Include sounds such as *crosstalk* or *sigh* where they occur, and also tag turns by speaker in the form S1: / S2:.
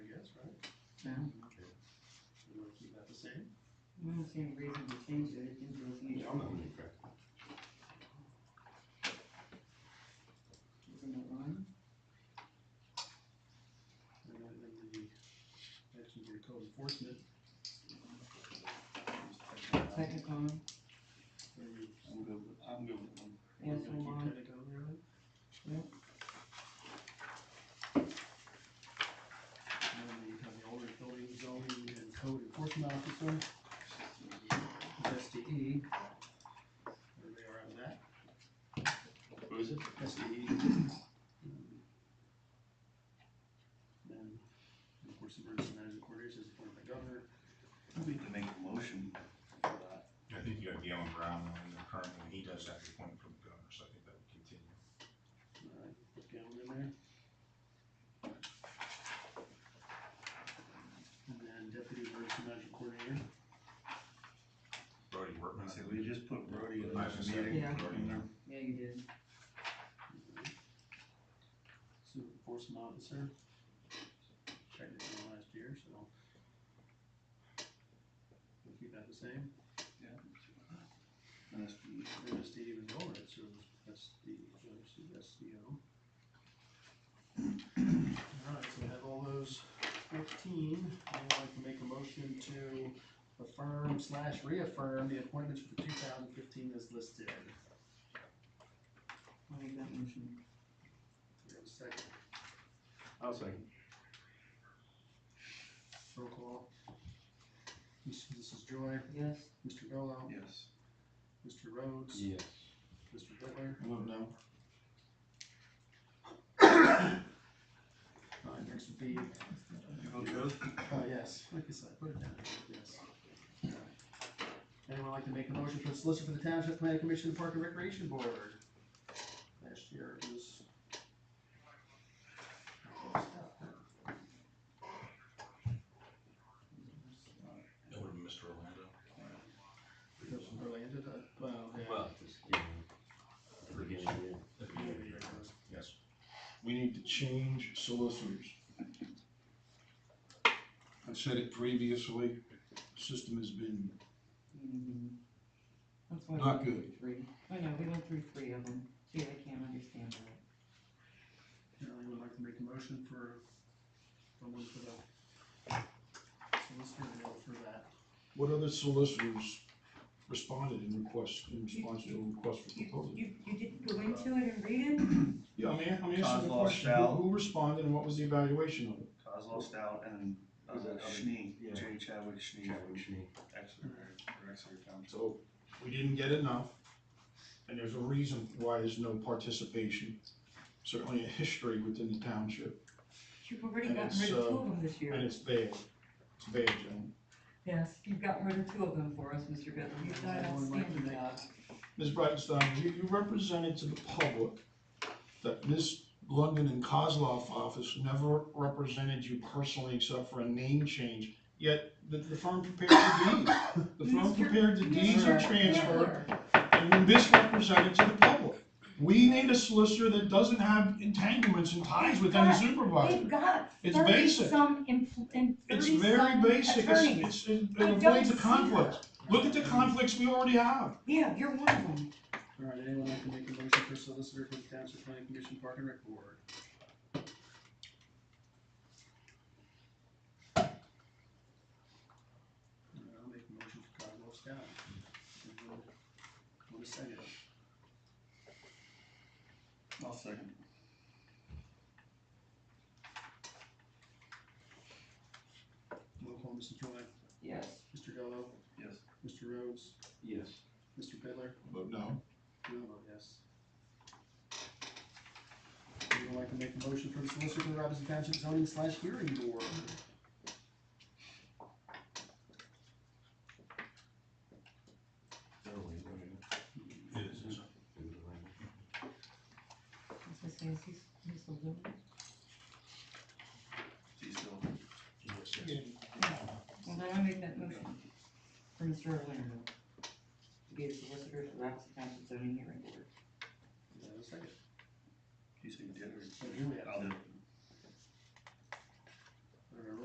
S1: same.
S2: I don't see any reason to change it into a
S1: Yeah,
S2: future.
S1: I'm not gonna correct that.
S2: Isn't it wrong?
S1: And then in the, that's in your code enforcement.
S2: Second column,
S1: Are you- I'm good with, I'm good with them. We're
S2: Yes,
S1: gonna
S2: I'm
S1: keep
S2: on.
S1: Pentagon around it.
S2: Yep.
S1: And then we have the older building zoning and code enforcement officer. S D E. Where they are on that.
S3: Who is it?
S1: S D E. Then, of course, emergency management coordinator is appointed by governor.
S3: I need to make a motion for that.
S4: I think you have Galen Brown on there currently, and he does have the appointment from the governor, so I think that would continue.
S1: Alright, put Galen in there. And then deputy emergency management coordinator.
S4: Brody Workman.
S3: So we just put Brody in this meeting.
S2: Yeah.
S4: Brody, yeah.
S2: yeah, you did,
S1: Super enforcement officer. Checked it in last year, so. We'll keep that the same.
S3: And it's-
S1: And that's the even lower, it's, uh, that's the, that's the, that's the, um. *clears throat* Alright, so we have all those fifteen, I'd like to make a motion to affirm slash reaffirm the appointments for two thousand fifteen as listed. Do
S2: I'll make that motion.
S1: we have a second?
S3: I'll second.
S1: Roll call. Miss- Mrs. Joy,
S2: Yes,
S1: Mr. Gallow,
S3: Yes.
S1: Mr. Rhodes,
S3: Yes.
S1: Mr. Bittler.
S3: Vote no.
S1: Alright, next would be,
S3: You vote yes?
S1: oh, yes, like I said, put it down, yes. Alright. Anyone like to make a motion for the solicitor for the Township Planning Commission and Park and Recreation Board? Last year it was.
S4: That would have been Mr. Orlando.
S1: It was Orlando, uh, well, yeah.
S3: Well, just, yeah. Beginning of the year.
S4: At
S1: Yeah,
S4: the beginning of the year.
S1: it was.
S4: Yes.
S5: we need to change solicitors. I said it previously, the system has been,
S2: mhm. That's why we
S5: Not
S2: went through
S5: good.
S2: Three, I know, we went through three of them, gee, I can't understand that.
S1: Anyone would like to make a motion for, someone for the solicitor bill for that?
S5: what other solicitors responded in request, in response to a request
S2: You,
S5: for proposal?
S2: you, you didn't go into it and read it?
S5: Yeah, I mean, I'm
S3: Cause
S5: asking the
S3: law
S5: question,
S3: shall-
S5: who who responded and what was the evaluation of it?
S3: Coslow Stout and, uh,
S6: Was it other-
S3: Schnee,
S6: yeah.
S3: Jay Chadwick Schnee.
S6: Chadwick Schnee.
S3: Exeter, or Exeter Township.
S5: So, we didn't get enough, and there's a reason why there's no participation, certainly a history within the township,
S2: You've already
S5: And
S2: gotten
S5: it's,
S2: rid of two
S5: uh,
S2: of them this
S5: and
S2: year.
S5: it's bad, it's bad, gentlemen.
S2: Yes, you've gotten rid of two of them for us, Mr. Bittler, you've done an
S1: Anyone like to
S2: outstanding
S1: make-
S2: job.
S5: Ms. Breitenstein, you, you represented to the public that Ms. London and Kozloff office never represented you personally except for a name change, yet the, the firm prepared the deeds. The firm
S2: Mr.
S5: prepared the deeds
S2: Mr.
S5: of transfer
S2: Bittler.
S5: and you misrepresented to the public. We need a solicitor that doesn't have entanglements and ties with any
S7: Right.
S5: supervisor.
S7: They've got
S5: It's
S7: thirty
S5: basic.
S7: some empl- and
S5: It's
S7: thirty
S5: very
S7: some
S5: basic, it's,
S7: attorneys.
S5: it's, it
S7: I
S5: avoids
S7: don't
S5: the
S7: see
S5: conflicts. Look at the conflicts we already have.
S7: Yeah, you're one of them.
S1: Alright, anyone like to make a motion for solicitor for the township planning commission, park and rec board? Alright, I'll make a motion for Cosmo Scout. One second.
S3: I'll second.
S1: Roll call, Mrs. Joy,
S2: Yes,
S1: Mr. Gallow,
S3: Yes.
S1: Mr. Rhodes,
S3: Yes.
S1: Mr. Bittler.
S5: But no.
S1: No, vote yes. Would you like to make a motion for the solicitor for the Robinson Township zoning slash hearing board?
S4: It is, it's a-
S2: this is Nancy's, Miss Lulu.
S3: She's still.
S4: yes, yes.
S2: Well, then I make that motion for Mr. Orlando to be the solicitor for Robinson Township zoning hearing board.
S1: Is that a second?
S3: You say you did or?
S1: So here we have,
S3: I'll do it.